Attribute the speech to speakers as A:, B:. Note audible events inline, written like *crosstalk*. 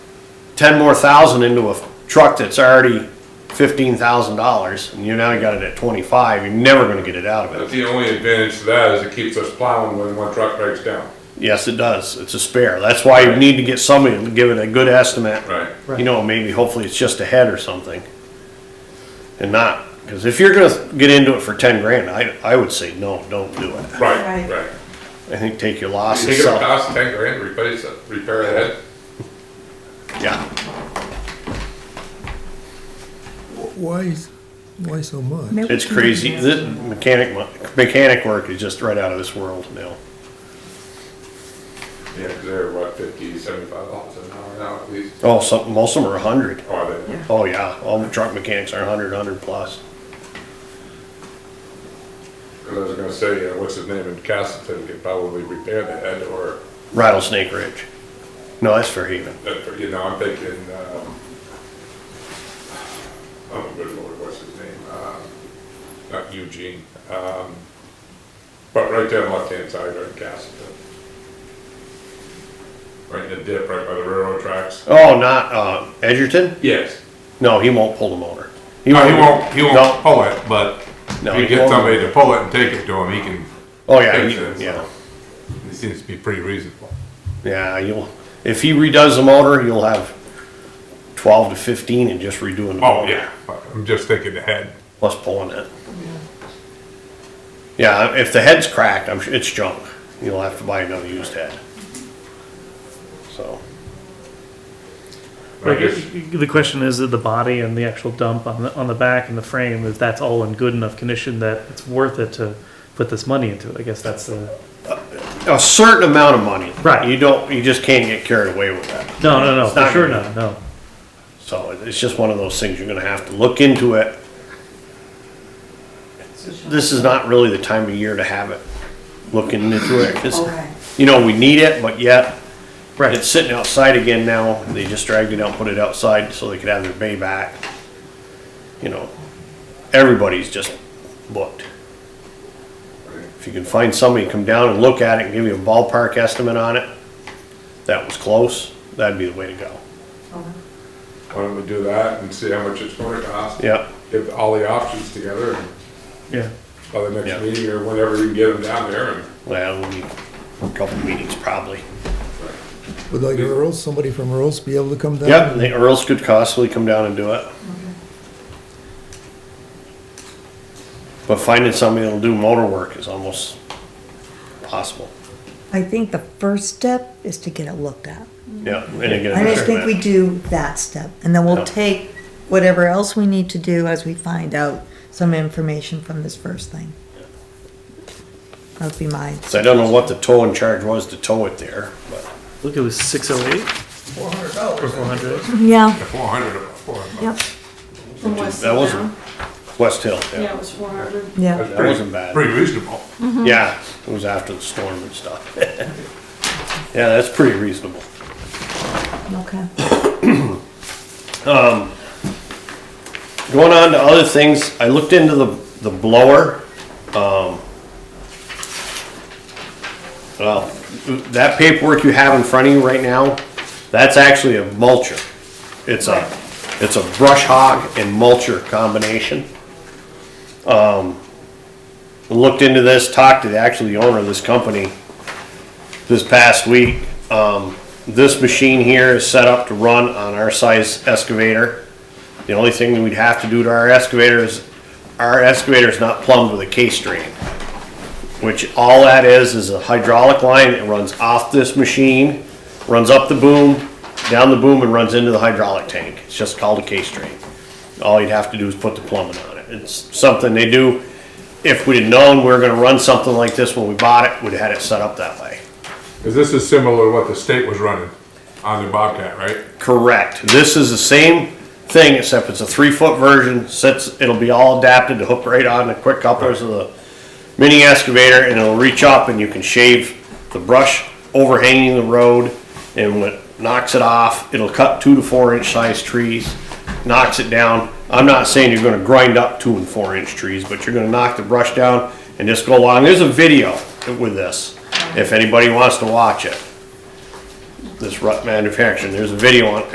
A: ten more thousand into a truck that's already fifteen thousand dollars, and you now got it at twenty-five, you're never gonna get it out of it.
B: But the only advantage to that is it keeps us plowing when one truck breaks down.
A: Yes, it does. It's a spare. That's why you need to get somebody to give it a good estimate.
B: Right.
A: You know, maybe hopefully it's just a head or something. And not, because if you're gonna get into it for ten grand, I, I would say, no, don't do it.
B: Right,
C: Right.
B: right.
A: I think take your
B: You
A: losses.
B: think it'll
A: sell it.
B: cost ten grand to replace it, repair the head?
A: Yeah,
D: Why, is- why so much?
C: Maybe
A: it's
C: we can
A: crazy.
C: do that.
A: The mechanic, mo- mechanic work is just right out of this world now.
B: Yeah, they they're what, fifty, seventy-five dollars an hour now at least.
A: Oh, some, most of them are a hundred.
B: Or they,
C: Yeah.
A: Oh, yeah, all the truck mechanics are a hundred, hundred plus.
B: cause I was gonna say, uh, what's his name in Castleton could probably repair the head or,
A: Rattlesnake Ridge. No, that's Fairhaven.
B: uh, you know, I'm thinking, um, oh, good lord, what's his name? Um, Not Eugene, um, but right there on the left-hand side, right in Castleton. Right in the dip, right by the railroad tracks.
A: Oh, not, uh, Edgerton?
B: Yes.
A: No, he won't pull the motor. He
B: No, Uh, he won't, he won't
A: No.
B: pull it, but
A: No,
B: you
A: he
B: get
A: won't.
B: somebody to pull it and take it to him, he can,
A: Oh, yeah,
B: fix it,
A: he- yeah,
B: so. he seems to be pretty reasonable.
A: yeah, you'll, if he redoes the motor, you'll have twelve to fifteen and just redoing the
B: Oh,
A: motor.
B: yeah, but I'm just thinking ahead.
A: Plus pulling it. Yeah, if the head's cracked, I'm sure, it's junk. You'll have to buy another used head. So,
B: I
E: Like,
B: guess,
E: The question is that the body and the actual dump on the, on the back and the frame, if that's all in good enough condition that it's worth it to put this money into it, I guess that's the,
A: a certain amount of money.
E: Right.
A: You don't, you just can't get carried away with that.
E: no, no, no, for
A: not
E: sure
A: gonna
E: not, no.
A: So it- it's just one of those things, you're gonna have to look into it. This is not really the time of year to have it, looking into it, 'cause,
C: Okay.
A: you know, we need it, but yet, it's
E: Right,
A: sitting outside again now, they just dragged it out, put it outside so they could have their bay back. You know, everybody's just booked. If you can find somebody, to come down and look at it and give you a ballpark estimate on it, that was close, that'd be the way to go,
B: why don't we do that and see how much it's gonna cost?
A: yeah.
B: Get all the options together and
E: yeah.
B: by the
A: Yeah.
B: next meeting or whenever you can get them down there and.
A: Well, we need a couple meetings probably.
D: Would like Earl's, somebody from Earl's be able to come down?
A: Yep, the Earls could possibly come down and do it. But finding somebody that'll do motor work is almost possible.
F: I think the first step is to get it looked at.
A: Yeah, and again.
F: I just think we do that step, and then
A: Yeah.
F: we'll take whatever else we need to do as we find out some information from this first thing. That would be mine.
A: So I don't know what the towing charge was to tow it there, but
E: Look, it was six oh eight? Four hundred dollars.
F: Yeah,
B: Four hundred of them, four hundred.
F: yep,
C: From West
A: that wasn't,
C: Town.
A: West Hill,
C: Yeah,
A: yeah.
C: it was four hundred.
F: yeah.
A: That wasn't bad.
B: Pretty reasonable.
A: Yeah, it was after the storm and stuff. *laughs* Yeah, that's pretty reasonable.
F: Okay.
A: Going on to other things, I looked into the, the blower. Um, well, that paperwork you have in front of you right now, that's actually a mulcher. It's a, it's a brush hog and mulcher combination. Um, looked into this, talked to the, actually the owner of this company this past week. Um, this machine here is set up to run on our size excavator. The only thing we'd have to do to our excavator is, our excavator is not plumbed with a case drain. Which all that is, is a hydraulic line that runs off this machine, runs up the boom, down the boom and runs into the hydraulic tank. It's just called a case drain. All you'd have to do is put the plumbing on it. It's something they do, if we'd have known we were gonna run something like this when we bought it, we'd have had it set up that way.
B: Cause this is similar to what the state was running on the Bobcat, right?
A: Correct. This is the same thing, except it's a three-foot version, sits, it'll be all adapted to hook right on the quick couplers of the mini excavator, and it'll reach up and you can shave the brush overhanging the road, and when it knocks it off, it'll cut two to four inch size trees, knocks it down. I'm not saying you're gonna grind up two and four inch trees, but you're gonna knock the brush down and just go along. There's a video with this, if anybody wants to watch it. This rut manufacturing, there's a video on